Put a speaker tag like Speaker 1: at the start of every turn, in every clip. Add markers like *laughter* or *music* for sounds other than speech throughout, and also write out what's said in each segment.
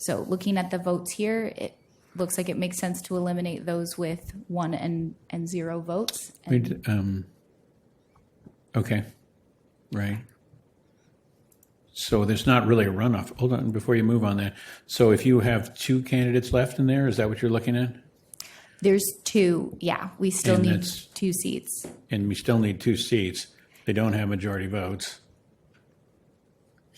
Speaker 1: So looking at the votes here, it looks like it makes sense to eliminate those with one and, and zero votes.
Speaker 2: We d- um, okay, right. So there's not really a runoff. Hold on, before you move on that. So if you have two candidates left in there, is that what you're looking at?
Speaker 1: There's two, yeah, we still
Speaker 2: And
Speaker 1: need
Speaker 2: that's-
Speaker 1: two seats.
Speaker 2: And we still need two seats. They don't have majority votes.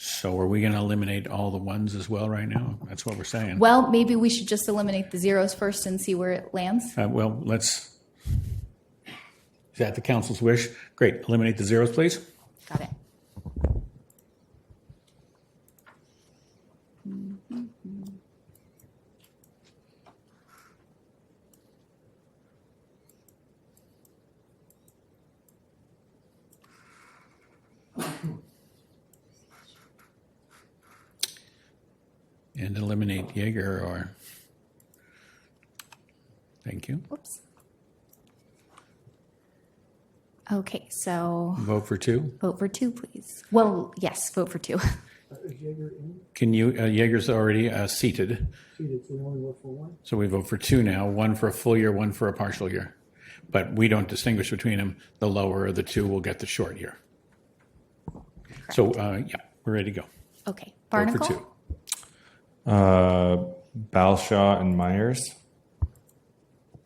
Speaker 2: So are we going to eliminate all the ones as well right now? That's what we're saying.
Speaker 1: Well, maybe we should just eliminate the zeros first and see where it lands.
Speaker 2: Uh, well, let's, is that the council's wish? Great, eliminate the zeros, please.
Speaker 1: Got it.
Speaker 2: And eliminate Jaeger or, thank you.
Speaker 1: Whoops. Okay, so
Speaker 2: Vote for two.
Speaker 1: vote for two, please. Well, yes, vote for two. *laughs*
Speaker 3: Is Jaeger in?
Speaker 2: Can you, uh, Jaeger's already uh, seated,
Speaker 3: Seated, so we only vote for one?
Speaker 2: so we vote for two now, one for a full year, one for a partial year. But we don't distinguish between them. The lower of the two will get the short year. So, uh, yeah, we're ready to go.
Speaker 1: Okay,
Speaker 2: Vote for
Speaker 1: Barnacle?
Speaker 2: two.
Speaker 4: Uh, Balshaw and Myers.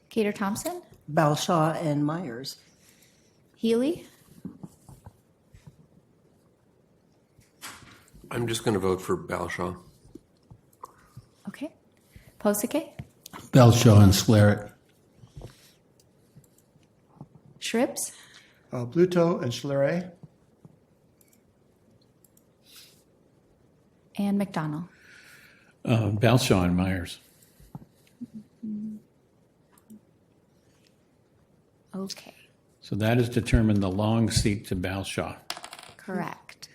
Speaker 1: Gator Thompson?
Speaker 5: Balshaw and Myers.
Speaker 1: Healy?
Speaker 6: I'm just going to vote for Balshaw.
Speaker 1: Okay. Posake?
Speaker 7: Belshaw and Slarek.
Speaker 1: Shribs?
Speaker 3: Uh, Bluto and Schleray.
Speaker 1: And McDonald?
Speaker 2: Uh, Balshaw and Myers.
Speaker 1: Okay,
Speaker 2: So that has determined the long seat to Balshaw.
Speaker 1: correct.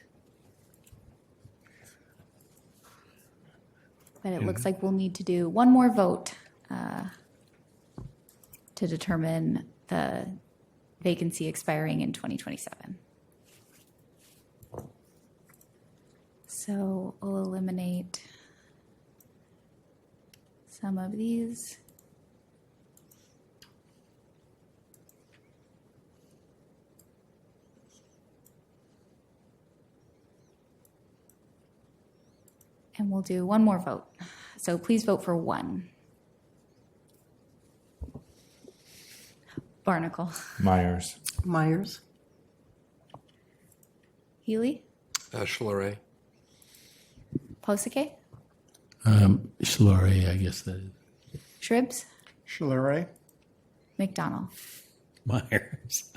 Speaker 1: But it looks like we'll need to do one more vote uh, to determine the vacancy expiring in 2027. So we'll eliminate some of these. And we'll do one more vote. So please vote for one. Barnacle.
Speaker 4: Myers.
Speaker 5: Myers.
Speaker 1: Healy?
Speaker 6: Uh, Schleray.
Speaker 1: Posake?
Speaker 7: Um, Slarek, I guess that is.
Speaker 1: Shribs?
Speaker 3: Schleray.
Speaker 1: McDonald?
Speaker 2: Myers.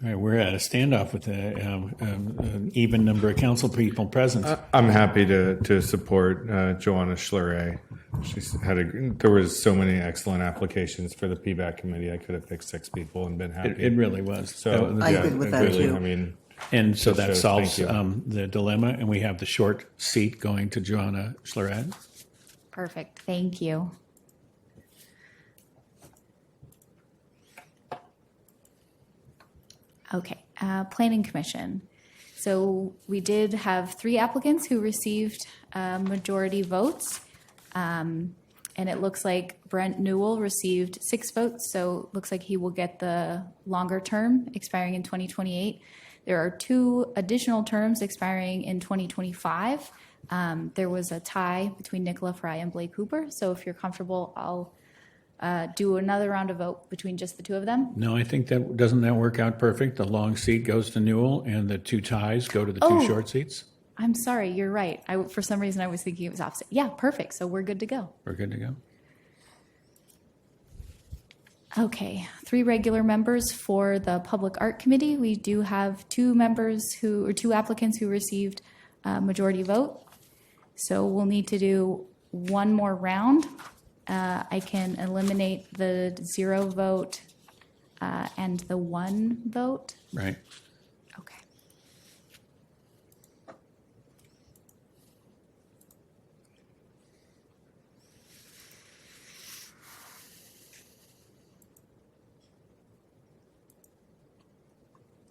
Speaker 2: All right, we're at a standoff with a, um, um, an even number of council people present.
Speaker 4: I'm happy to to support uh, Joanna Schleray. She's had a. There was so many excellent applications for the PBAC committee. I could have picked six people and been happy.
Speaker 2: It, it really was.
Speaker 4: so
Speaker 2: That was-
Speaker 5: I agree with
Speaker 4: it
Speaker 5: that,
Speaker 4: really,
Speaker 5: too.
Speaker 4: I mean,
Speaker 2: and so that
Speaker 4: shows-
Speaker 2: solves
Speaker 4: thank you.
Speaker 2: um, the dilemma, and we have the short seat going to Joanna Schlerad.
Speaker 1: Perfect, thank you. Okay, uh, Planning Commission. So we did have three applicants who received uh, majority votes. Um, And it looks like Brent Newell received six votes, so it looks like he will get the longer term expiring in 2028. There are two additional terms expiring in 2025. Um, There was a tie between Nicola Fry and Blake Cooper, so if you're comfortable, I'll uh, do another round of vote between just the two of them.
Speaker 2: No, I think that doesn't that work out perfect. The long seat goes to Newell, and the two ties go to the two
Speaker 1: Oh.
Speaker 2: short seats.
Speaker 1: I'm sorry, you're right. I, for some reason, I was thinking it was opposite. Yeah, perfect. So we're good to go.
Speaker 2: We're good to go.
Speaker 1: Okay, three regular members for the Public Art Committee. We do have two members who, or two applicants who received uh, majority vote. So we'll need to do one more round. Uh, I can eliminate the zero vote uh, and the one vote.
Speaker 2: Right.
Speaker 1: Okay.